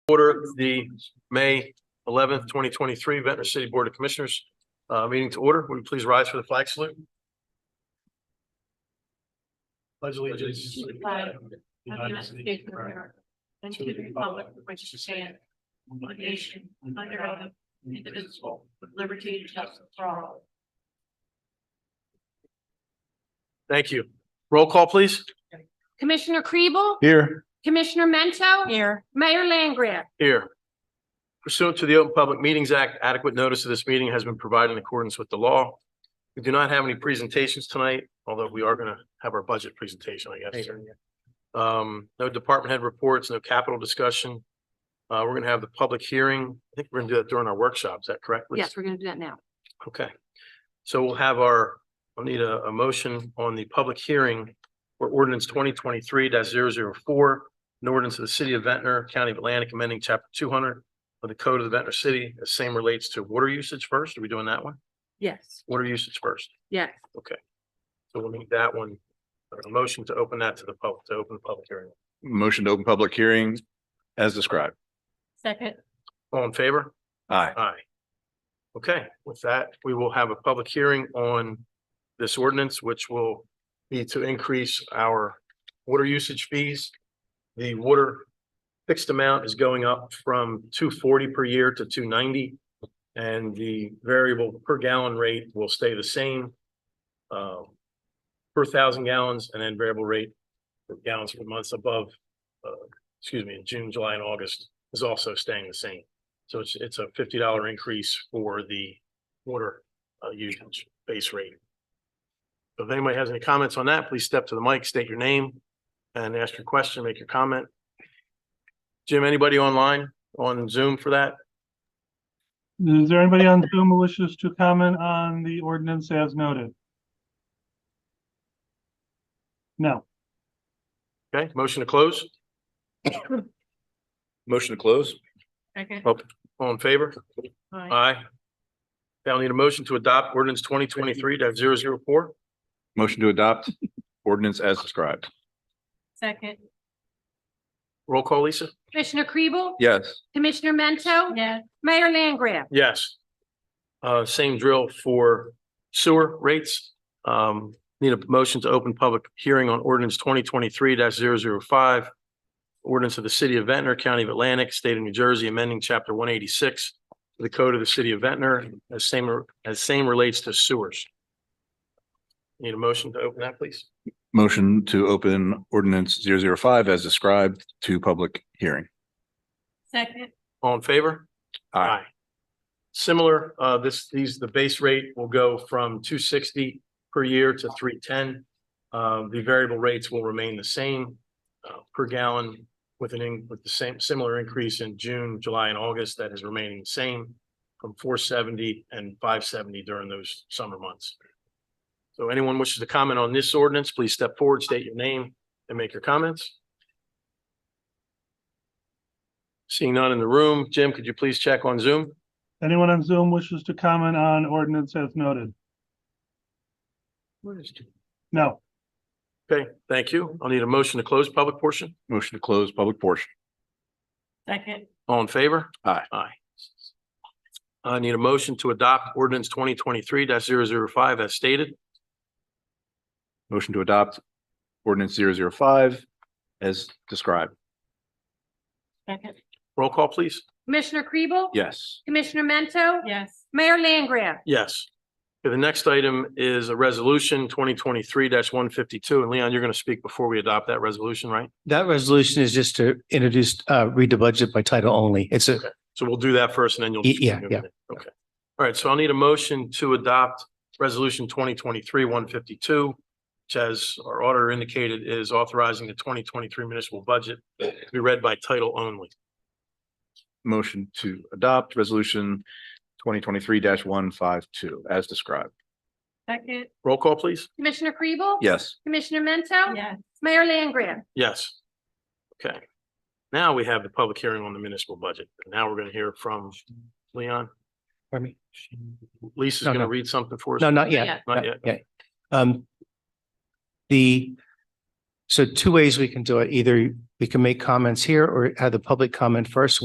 Order the May eleventh, twenty twenty-three Ventnor City Board of Commissioners, uh, meeting to order. Would you please rise for the flag salute? Pledge allegiance. to the flag of United States of America, And to the republic for which it stands one nation, under God, indivisible, with liberty and justice for all. Thank you. Roll call, please. Commissioner Kribel? Here. Commissioner Mento? Here. Mayor Langria? Here. Pursuant to the Open Public Meetings Act, adequate notice of this meeting has been provided in accordance with the law. We do not have any presentations tonight, although we are gonna have our budget presentation, I guess. Um, no department head reports, no capital discussion. Uh, we're gonna have the public hearing. I think we're gonna do that during our workshop. Is that correct? Lisa? Yes, we're gonna do that now. Okay. So we'll have our, I'll need a, a motion on the public hearing for ordinance twenty twenty-three 4 an ordinance of the city of Ventnor, county of Atlantic, amending chapter two hundred of the code of the Ventnor city. The same relates to water usage first. Are we doing that one? Yes, Water usage first. yes. So we'll need that one. A motion to open that to the public, to open the public hearing. Motion to open public hearing as described. Second. All in favor? Aye. Aye. Okay, with that, we will have a public hearing on this ordinance, which will be to increase our water usage fees. The water fixed amount is going up from two forty per year to two ninety. And the variable per gallon rate will stay the same. uh, Per thousand gallons and then variable rate for gallons per months above, uh, excuse me, in June, July and August is also staying the same. So it's, it's a fifty dollar increase for the water uh, usage base rate. So If anybody has any comments on that, please step to the mic, state your name and ask your question, make your comment. Jim, anybody online on Zoom for that? Is there anybody on Zoom who wishes to comment on the ordinance as noted? No. Okay, motion to close, Motion to close? Second. all in favor? Aye. Now I need a motion to adopt ordinance twenty twenty-three 4 Motion to adopt ordinance as described. Second. Roll call, Lisa? Commissioner Kribel? Yes. Commissioner Mento? Yes. Mayor Langria? Yes. Uh, same drill for sewer rates. Um, need a motion to open public hearing on ordinance twenty twenty-three 5 Ordinance of the city of Ventnor, county of Atlantic, state of New Jersey, amending chapter one eighty-six of the code of the city of Ventnor, as same, as same relates to sewers. Need a motion to open that, please? Motion to open ordinance zero zero five as described to public hearing. Second. All in favor? Aye. Similar, uh, this, these, the base rate will go from two sixty per year to three ten. Um, the variable rates will remain the same, uh, per gallon with an, in- with the same, similar increase in June, July and August that is remaining the same from four seventy and five seventy during those summer months. So anyone wishes to comment on this ordinance, please step forward, state your name and make your comments. Seeing none in the room, Jim, could you please check on Zoom? Anyone on Zoom wishes to comment on ordinance as noted? No. Okay, thank you. I'll need a motion to close public portion. Motion to close public portion. Second. All in favor? Aye. Aye. I need a motion to adopt ordinance twenty twenty-three 5 as stated. Motion to adopt ordinance zero zero five as described. Second. Roll call, please. Commissioner Kribel? Yes. Commissioner Mento? Yes. Mayor Langria? Yes. Okay, The next item is a resolution twenty twenty-three one fifty-two. And Leon, you're going to speak before we adopt that resolution, right? That resolution is just to introduce, uh, read the budget by title only. It's a, So we'll do that first and then you'll. Y- yeah, yeah. Okay. All right, so I'll need a motion to adopt resolution twenty twenty-three one fifty-two, which as our auditor indicated is authorizing the twenty twenty-three municipal budget to be read by title only. Motion to adopt resolution twenty twenty-three one five two as described. Second. Roll call, please. Commissioner Kribel? Yes. Commissioner Mento? Yes. Mayor Langria? Yes. Okay. Now we have the public hearing on the municipal budget. Now we're going to hear from Leon. pardon me? Lisa's No, going to no. read something for us. No, not Not yet. yet. Not yet. Yeah. Um, the, so two ways we can do it. Either we can make comments here or have the public comment first.